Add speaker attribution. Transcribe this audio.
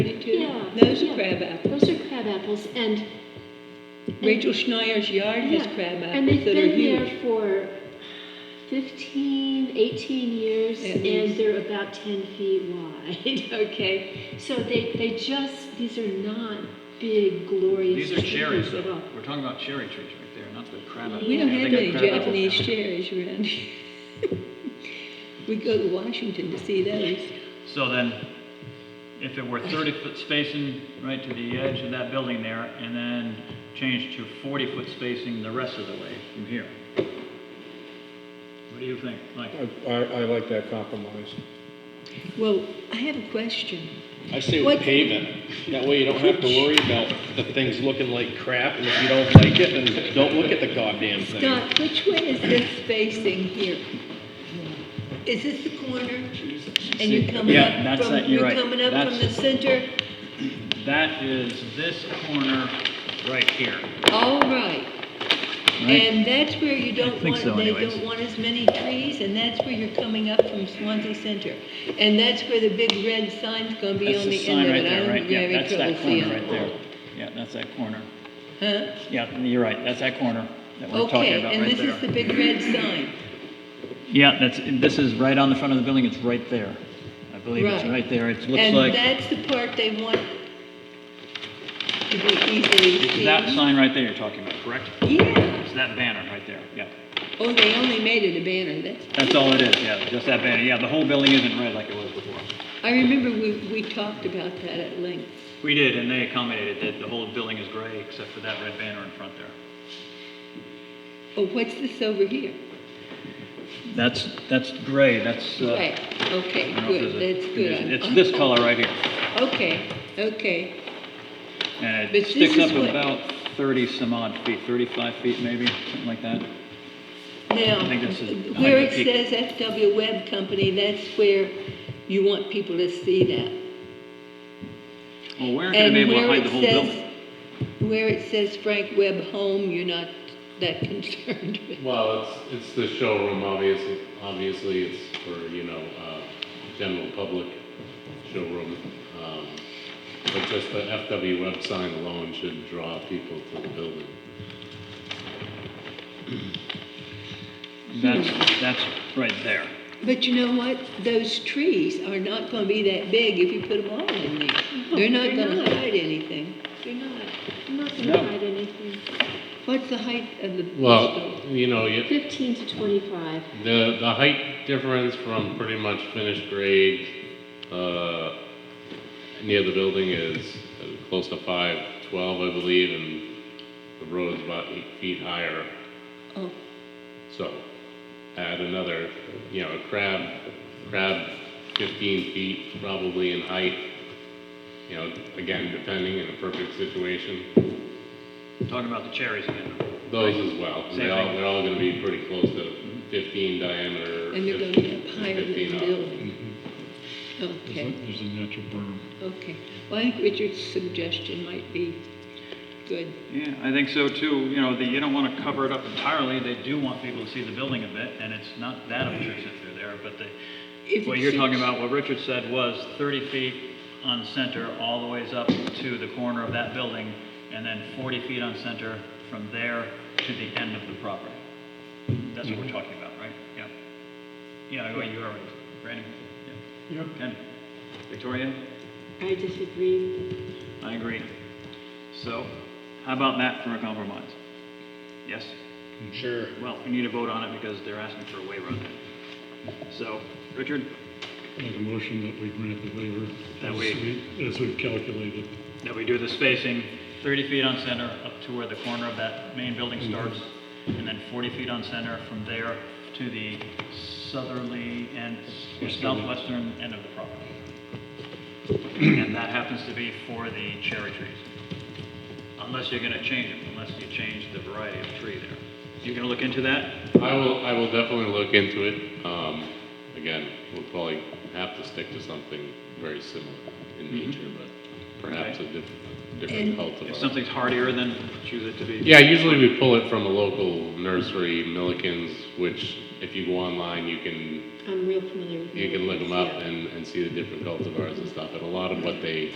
Speaker 1: too.
Speaker 2: Yeah,
Speaker 1: Those are
Speaker 2: yeah.
Speaker 1: crab apples.
Speaker 2: Those are crab apples, and and-
Speaker 1: Rachel Schneier's yard has
Speaker 2: yeah,
Speaker 1: crab apples
Speaker 2: And they've
Speaker 1: that are
Speaker 2: been
Speaker 1: huge.
Speaker 2: there for 15, 18 years,
Speaker 1: At
Speaker 2: and
Speaker 1: least.
Speaker 2: they're about 10 feet wide, okay? So they, they just, these are not big glorious
Speaker 3: These are cherries,
Speaker 2: trees at
Speaker 3: though.
Speaker 2: all.
Speaker 3: We're talking about cherry trees right there, not the crab apples.
Speaker 1: We don't
Speaker 3: Yeah,
Speaker 1: have
Speaker 3: they
Speaker 1: any
Speaker 3: got crab apples
Speaker 1: Japanese
Speaker 3: now.
Speaker 1: cherries around here. We go to Washington to see those.
Speaker 3: So then, if it were 30 foot spacing right to the edge of that building there, and then change to 40 foot spacing the rest of the way from here. What do you think, Mike?
Speaker 4: I, I like that compromise.
Speaker 1: Well, I have a question.
Speaker 5: I say
Speaker 1: What-
Speaker 5: we pave it. That way you don't have to worry about the things looking like crap, and if you don't like it, then don't look at the goddamn thing.
Speaker 1: Doc, which way is this facing here? Is this the corner? And you're coming
Speaker 3: Yeah,
Speaker 1: up
Speaker 3: that's it,
Speaker 1: from,
Speaker 3: you're
Speaker 1: you're
Speaker 3: right.
Speaker 1: coming up from the
Speaker 3: That's-
Speaker 1: center?
Speaker 3: That is this corner right here.
Speaker 1: All right. And that's where you don't
Speaker 3: think
Speaker 1: want,
Speaker 3: so
Speaker 1: they
Speaker 3: anyways.
Speaker 1: don't want as many trees, and that's where you're coming up from Swansea Center. And that's where the big red sign's gonna be
Speaker 3: That's
Speaker 1: on
Speaker 3: the
Speaker 1: the end
Speaker 3: sign
Speaker 1: of
Speaker 3: right
Speaker 1: it.
Speaker 3: there,
Speaker 1: I
Speaker 3: right?
Speaker 1: don't
Speaker 3: Yeah,
Speaker 1: have
Speaker 3: that's
Speaker 1: any
Speaker 3: that
Speaker 1: trouble seeing
Speaker 3: corner right
Speaker 1: it.
Speaker 3: there. Yeah, that's that corner.
Speaker 1: Huh?
Speaker 3: Yeah, you're right, that's that corner that we're talking
Speaker 1: Okay,
Speaker 3: about
Speaker 1: and
Speaker 3: right
Speaker 1: this is the
Speaker 3: there.
Speaker 1: big red sign.
Speaker 3: Yeah, that's, this is right on the front of the building, it's right there. I believe it's
Speaker 1: Right.
Speaker 3: right there, it looks
Speaker 1: And
Speaker 3: like,
Speaker 1: that's the part they want to be easily seen.
Speaker 3: that sign right there you're talking about, correct?
Speaker 1: Yeah.
Speaker 3: It's that banner right there, yeah.
Speaker 1: Oh, they only made it a banner, that's
Speaker 3: That's all it is, yeah, just that banner. Yeah, the whole building isn't red like it was before.
Speaker 1: I remember we, we talked about that at length.
Speaker 3: We did, and they accommodated that the whole building is gray except for that red banner in front there.
Speaker 1: Oh, what's this over here?
Speaker 3: That's, that's gray, that's, uh.
Speaker 1: Right, okay,
Speaker 3: I don't know
Speaker 1: good,
Speaker 3: if there's a
Speaker 1: that's
Speaker 3: condition.
Speaker 1: good.
Speaker 3: It's this color right here,
Speaker 1: Okay, okay.
Speaker 3: and
Speaker 1: But
Speaker 3: it
Speaker 1: this
Speaker 3: sticks
Speaker 1: is
Speaker 3: up
Speaker 1: what-
Speaker 3: about thirty some odd feet, thirty-five feet maybe, something like that.
Speaker 1: Now,
Speaker 3: I think this is
Speaker 1: where it
Speaker 3: behind the
Speaker 1: says FW Web Company, that's where you want people to see that.
Speaker 3: Well, we're not gonna
Speaker 1: And
Speaker 3: be able to
Speaker 1: where
Speaker 3: hide the
Speaker 1: it
Speaker 3: whole
Speaker 1: says,
Speaker 3: building.
Speaker 1: where it says Frank Webb Home, you're not that concerned with.
Speaker 6: Well, it's, it's the showroom, obviously, obviously it's for, you know, uh, general public showroom. Um, But just the FW web sign alone should draw people to the building.
Speaker 3: That's, that's right there.
Speaker 1: But you know what? Those trees are not gonna be that big if you put them all in there. They're not
Speaker 2: they're
Speaker 1: gonna
Speaker 2: not.
Speaker 1: hide anything.
Speaker 2: They're not, I'm not going
Speaker 3: No.
Speaker 2: to hide anything.
Speaker 1: What's the height of the?
Speaker 6: Well, you know, you,
Speaker 2: 15 to 25.
Speaker 6: The, the height difference from pretty much finished grade, uh, near the building is uh, close to five twelve, I believe, and the road's about eight feet higher.
Speaker 1: Oh.
Speaker 6: So, add another, you know, a crab, crab fifteen feet probably in height. You know, again, depending in a perfect situation,
Speaker 3: Talking about the cherries again.
Speaker 6: those as well. They all, they're all gonna be pretty close to fifteen diameter.
Speaker 1: And they're gonna be up higher than
Speaker 6: 15
Speaker 1: the
Speaker 6: up.
Speaker 1: building. Okay,
Speaker 4: Mm-hmm. There's a natural berm.
Speaker 1: okay. Well, I think Richard's suggestion might be good.
Speaker 3: Yeah, I think so too. You know, the, you don't want to cover it up entirely. They do want people to see the building a bit, and it's not that obtrusive through there, but
Speaker 1: If
Speaker 3: the, what
Speaker 1: it
Speaker 3: you're talking
Speaker 1: suits-
Speaker 3: about, what Richard said was thirty feet on center, all the ways up to the corner of that building, and then forty feet on center from there to the end of the property. That's what we're talking about, right? Yeah. Yeah, well, you already, Randy? Yeah. Ken? Victoria?
Speaker 2: I disagree.
Speaker 3: I agree. So, how about that for a compromise? Yes?
Speaker 5: Sure.
Speaker 3: Well, we need a vote on it because they're asking for a waiver on it. So, Richard,
Speaker 4: Make a motion that we grant the waiver.
Speaker 3: That
Speaker 4: as
Speaker 3: we-
Speaker 4: we- As we've calculated.
Speaker 3: that we do the spacing 30 feet on center up to where the corner of that main building starts, and then 40 feet on center from there to the southerly and or southwestern end of the property. And that happens to be for the cherry trees. Unless you're gonna change it, unless you change the variety of tree there. You gonna look into that?
Speaker 6: I will, I will definitely look into it. Um, again, we'll probably have to stick to something very similar in
Speaker 5: Mm-hmm.
Speaker 6: nature, but perhaps a diff- different
Speaker 1: And-
Speaker 3: If
Speaker 6: cultivar.
Speaker 3: something's hardier, then choose it to be.
Speaker 6: Yeah, usually we pull it from a local nursery, Millikins, which if you go online, you can,
Speaker 2: I'm real familiar with
Speaker 6: you can look them up
Speaker 2: Yeah.
Speaker 6: and, and see the different cultivars and stuff. And a lot of what they